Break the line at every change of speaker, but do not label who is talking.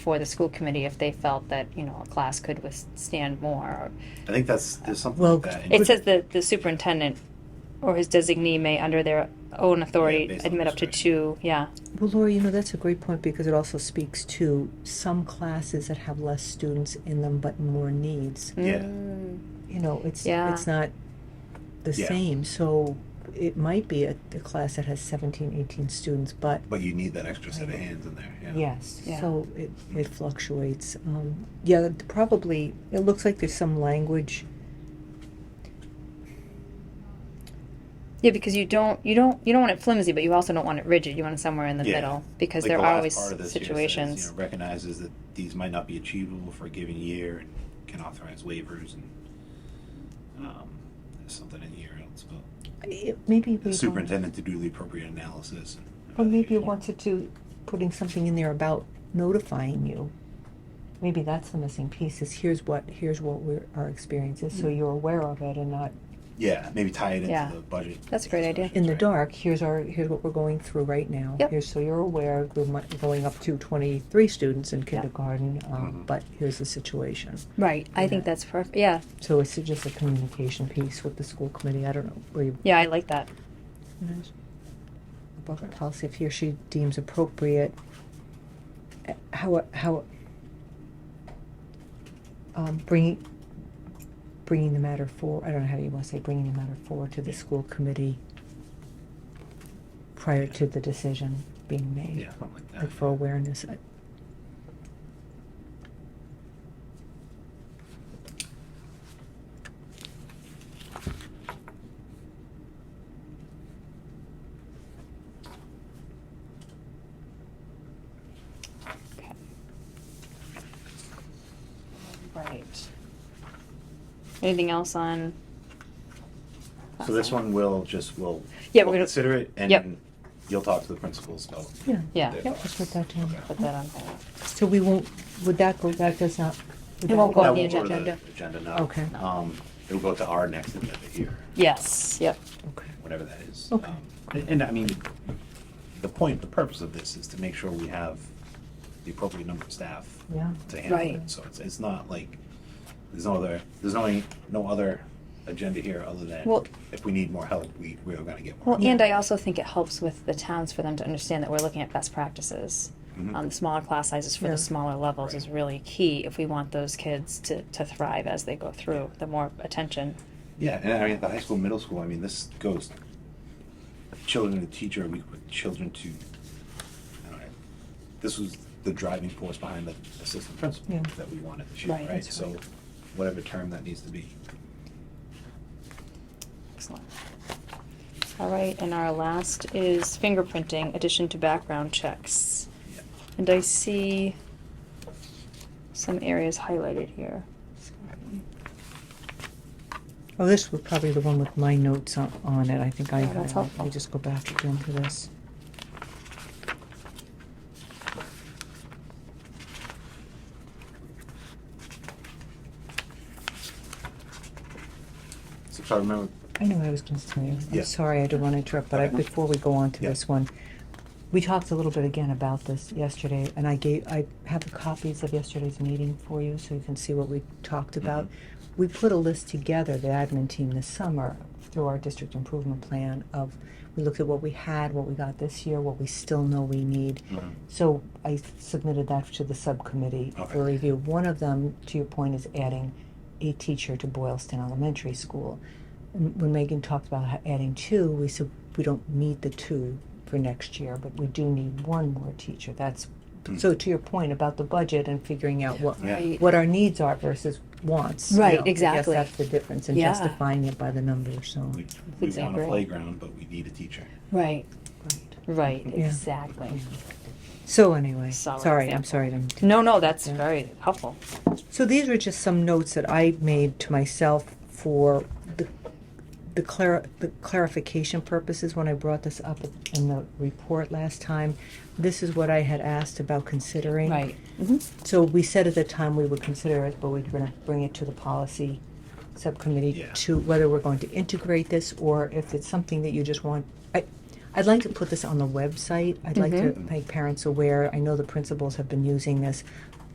for the school committee if they felt that, you know, a class could withstand more.
I think that's, there's something
Well,
like that. in-
It says that the superintendent or his designee may, under their own
Yeah,
authority,
based on
admit up to
administration.
two, yeah.
Well, Laura, you know, that's a great point because it also speaks to some classes that have less students in them but more needs.
Yeah.
Mm.
You know, it's
Yeah.
it's not the
Yeah.
same. So it might be a, a class that has 17, 18 students, but
But you need that extra set of hands in there, yeah.
yes,
Yeah.
so it, it fluctuates. Um, yeah, probably, it looks like there's some language.
Yeah, because you don't you don't you don't want it flimsy, but you also don't want it rigid. You want it somewhere in the
Yeah.
middle because
Like
there
the
are always
last part of this here says, you know,
situations.
Recognizes that these might not be achievable for a given year and can authorize waivers and, um, there's something in here else about
It, maybe we
the
don't-
superintendent to do the appropriate analysis. and uh,
Or maybe it
evaluation.
wants it to putting something in there about notifying you. Maybe that's the missing piece is here's what, here's what we're, our experience is, so
Mm.
you're aware of it and not
Yeah, maybe tie it
Yeah.
into the budget.
That's a great idea.
in
discussions,
the
right?
dark, here's our, here's what we're going through right now.
Yep.
Here's, so you're aware, we're mu- going up to twenty-three students in kindergarten, um,
Mhm.
but here's the situation.
right. I think
Yeah.
that's perfect. Yeah.
So it's just a communication piece with the school committee, I don't know, where you
Yeah, I like that.
Above policy, if he or she deems appropriate, eh, how, how, um, bringing, bringing the matter for, I don't know how you wanna say, bringing the matter forward to the school committee prior to the decision being made,
Yeah, something like that.
like for awareness. I-
Okay. Right. Anything else on
So this one will just, will.
Yeah, we're
we'll
gonna-
Consider it
Yep.
and you'll talk to the principals about.
Yeah.
Yeah.
their
Yep.
thoughts.
Just put that down.
Okay.
put that on hold?
So we won't, would that go, that does not? would
It
that
won't go
That
on the
won't go to
agenda.
Agenda now.
Okay.
Um, it'll go to our next agenda here,
Yes. Yep.
Okay.
whatever that is.
Okay.
Um, And, and I mean, the point, the purpose of this is to make sure we have the appropriate number of staff
Yeah.
to handle
Right.
it. So it's, it's not like, there's no other, there's no, any- no other agenda here other than
Well-
if we need more help, we, we're gonna get more.
Well, and I also think it helps with the towns for them to understand that we're looking at best practices.
Mhm.
Um, the smaller class sizes for
Yeah.
the smaller levels
Right.
is really key if we want those kids to, to thrive as they go through. The more attention,
Yeah, and I mean, at the high school, middle school, I mean, this goes children to teacher, we put children to, I don't know, this was the driving force behind the assistant principal
Yeah.
that we wanted this year,
Right,
right?
that's
So,
right.
whatever term that needs to be.
excellent. All right, and our last is fingerprinting, addition to background checks.
Yeah.
And I see some areas highlighted here.
Oh, this was probably the one with my notes on, on it. I think I
Yeah,
got
that's
it.
helpful.
Let me just go back again to this.
So, if I remember,
I know I was going to tell you.
Yeah.
I'm sorry, I didn't want to interrupt, but I,
Okay.
before we go on to
Yeah.
this one, we talked a little bit again about this yesterday, and I gave I have the copies of yesterday's meeting for you, so you can see what we talked
Mm-hmm.
about. We put a list together, the admin team, this summer through our district improvement plan of we looked at what we had, what we got this year, what we still know we need.
Mhm.
So I submitted that to the subcommittee
Okay.
for review. One of them, to your point, is adding a teacher to Boylston Elementary School. And When Megan talked about ha- adding two, we said we don't need the two for next year, but we do need one more teacher. That's so to your point about the budget and figuring out what
Yeah. Right.
what our needs are versus wants.
Right,
I guess
exactly.
that's the difference in
Yeah.
justifying it by the numbers. So
we, we want
exactly
a
right.
playground, but we need a teacher.
Right, right,
Yeah.
exactly.
so anyway,
Solid
sorry, I'm
example.
sorry. I'm
No, no, that's
Yeah.
very helpful.
So these were just some notes that I made to myself for the the, clar- the clarification purposes when I brought this up in the report last time. This is what I had asked about considering.
Right.
So we said at the time we would consider it, but we're going to bring it to the policy subcommittee
Yeah.
to whether we're going to integrate this or if it's something that you just want. I, I'd like to put this on the website. I'd like
Mhm.
to make parents aware. I know the principals have been using this.